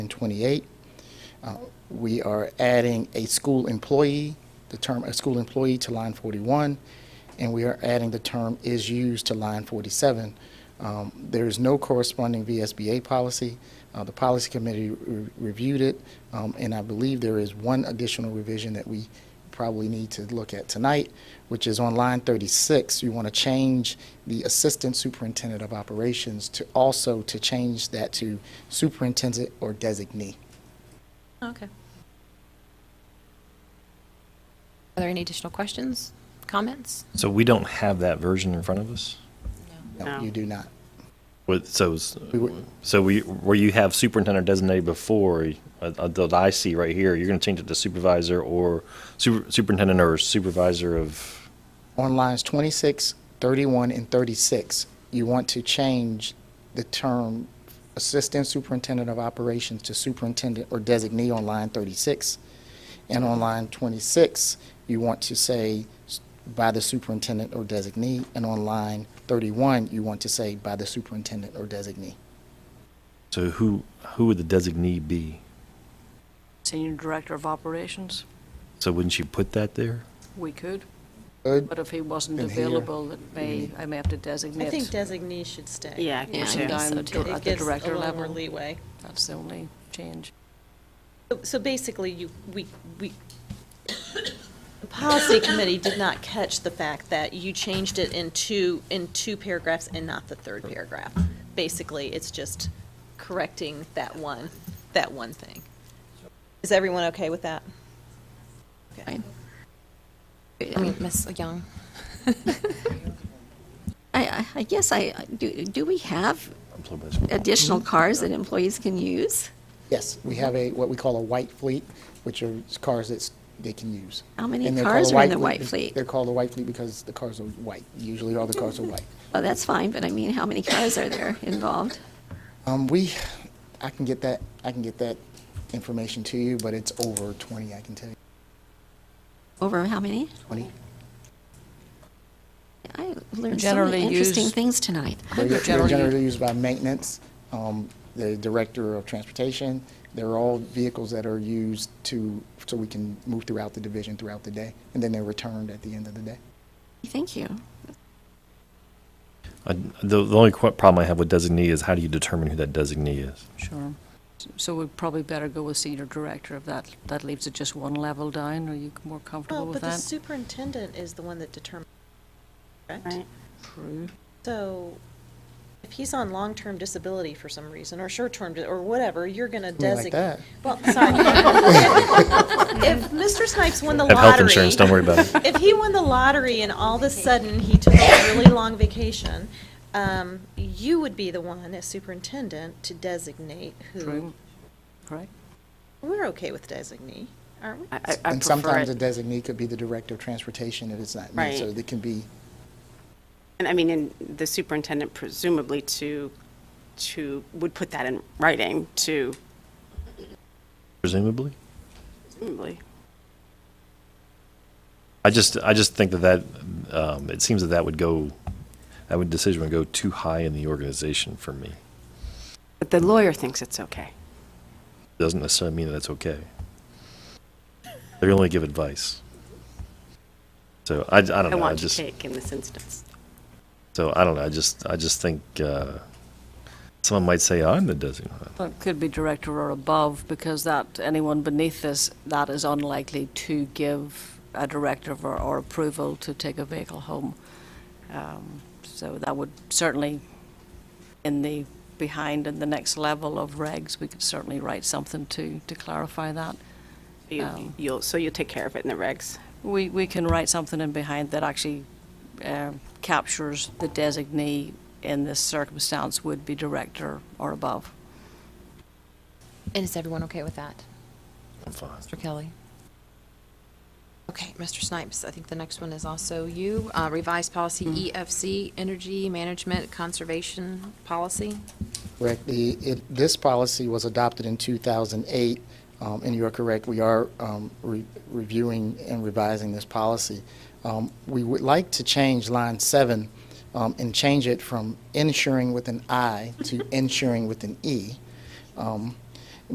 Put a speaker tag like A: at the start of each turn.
A: and 28. Uh, We are adding a school employee, the term a school employee to line 41, and we are adding the term is used to line 47. Um, There is no corresponding VSBA policy. Uh, The policy committee re- reviewed it, um, and I believe there is one additional revision that we probably need to look at tonight, which is on line 36. You want to change the Assistant Superintendent of Operations to also to change that to Superintendent or Designee.
B: Okay. Are there any additional questions, comments?
C: So we don't have that version in front of us?
A: No, you do not.
C: With, so, s-
A: We were-
C: so we, where you have superintendent designated before, uh, uh, that I see right here, you're gonna change it to supervisor or super- superintendent or supervisor of,
A: On lines 26, 31, and 36, you want to change the term Assistant Superintendent of Operations to Superintendent or Designee on line 36. And on line 26, you want to say s- by the Superintendent or Designee. And on line 31, you want to say by the Superintendent or Designee.
C: so who, who would the designee be?
D: Senior Director of Operations,
C: So wouldn't you put that there?
D: we could,
A: Good?
D: but if he wasn't
A: And here.
D: available, it may, I may have to designate.
E: I think designee should stay.
F: Yeah, I
B: Yeah,
F: think
B: I
F: so.
B: guess so
D: I'm
B: too.
D: dir-
E: It
D: At the
E: gives a
D: director
E: little more
D: level,
E: leeway.
D: that's the only change.
E: So- So basically, you, we, we, the policy committee did not catch the fact that you changed it in two, in two paragraphs and not the third paragraph. Basically, it's just correcting that one, that one thing. Is everyone okay with that? Okay.
B: Fine. I mean, Ms. Young?
G: I- I, I guess I, do, do we have
C: I'm sorry, but it's-
G: additional
D: Mm-hmm.
G: cars that employees can use?
A: Yes, we have a, what we call a white fleet, which are cars that they can use.
G: How many
A: And they're called
G: cars
A: a
G: are in the white
A: be-
G: fleet?
A: They're called a white fleet because the cars are white. Usually all the cars are white.
G: Well, that's fine, but I mean, how many cars are there involved?
A: Um, we, I can get that, I can get that information to you, but it's over 20, I can tell you,
G: Over how many?
A: 20.
G: I learned so
D: Generally
G: many interesting
D: used-
G: things tonight.
A: They're
D: they're
A: they're
D: generally-
A: generally used by maintenance, um, the director of transportation. They're all vehicles that are used to, so we can move throughout the division throughout the day, and then they're returned at the end of the day.
G: Thank you.
C: I- The, the only qu- problem I have with designee is how do you determine who that designee is?
D: Sure. So we'd probably better go with Senior Director of that, that leaves it just one level down, are you more comfortable
E: Well,
D: with
E: but the
D: that?
E: superintendent is the one that determines, correct?
F: Right.
D: True.
E: So if he's on long-term disability for some reason, or short-term, di- or whatever, you're going to
A: Something like
E: designate.
A: that.
E: Well, sorry. If Mr. Snipes won the
C: Have
E: lottery.
C: health insurance, don't worry about it.
E: If he won the lottery and all of a sudden he took a really long vacation, um, you would be the one as superintendent to designate who.
D: True, correct?
E: We're okay with designee, aren't we?
F: I, I- I
A: And
F: prefer
A: sometimes a
F: it.
A: designee could be the director of transportation if it's not me,
F: Right.
A: so it can be,
F: And I mean, and the superintendent presumably to, to, would put that in writing to,
C: Presumably?
F: presumably.
C: I just, I just think that that, um, it seems that that would go, that would decision would go too high in the organization for me.
F: But the lawyer thinks it's okay.
C: doesn't necessarily mean that it's okay. They only give advice. So I, I don't
F: I
C: know. I
F: want to
C: just
F: take in this instance.
C: so I don't know. I just I just think uh, someone might say "Oh, I'm the designated.
D: Well, it could be director or above, because that, anyone beneath this, that is unlikely to give a directive or, or approval to take a vehicle home. Um, So that would certainly, in the, behind in the next level of regs, we could certainly write something to, to clarify that.
F: You-
D: Um.
F: You'll, so you'll take care of it in the regs.
D: We, we can write something in behind that actually um, captures the designee in this circumstance would be director or above.
B: And is everyone okay with that?
C: I'm fine.
B: Mr. Kelly? Okay, Mr. Snipes, I think the next one is also you. Uh, Revised policy EFC, Energy Management Conservation Policy.
A: Correct. The, it, this policy was adopted in 2008, um, and you are correct, we are, um, re- reviewing and revising this policy. Um, we would like to change line seven, um, and change it from insuring with an I to insuring with an E. Um,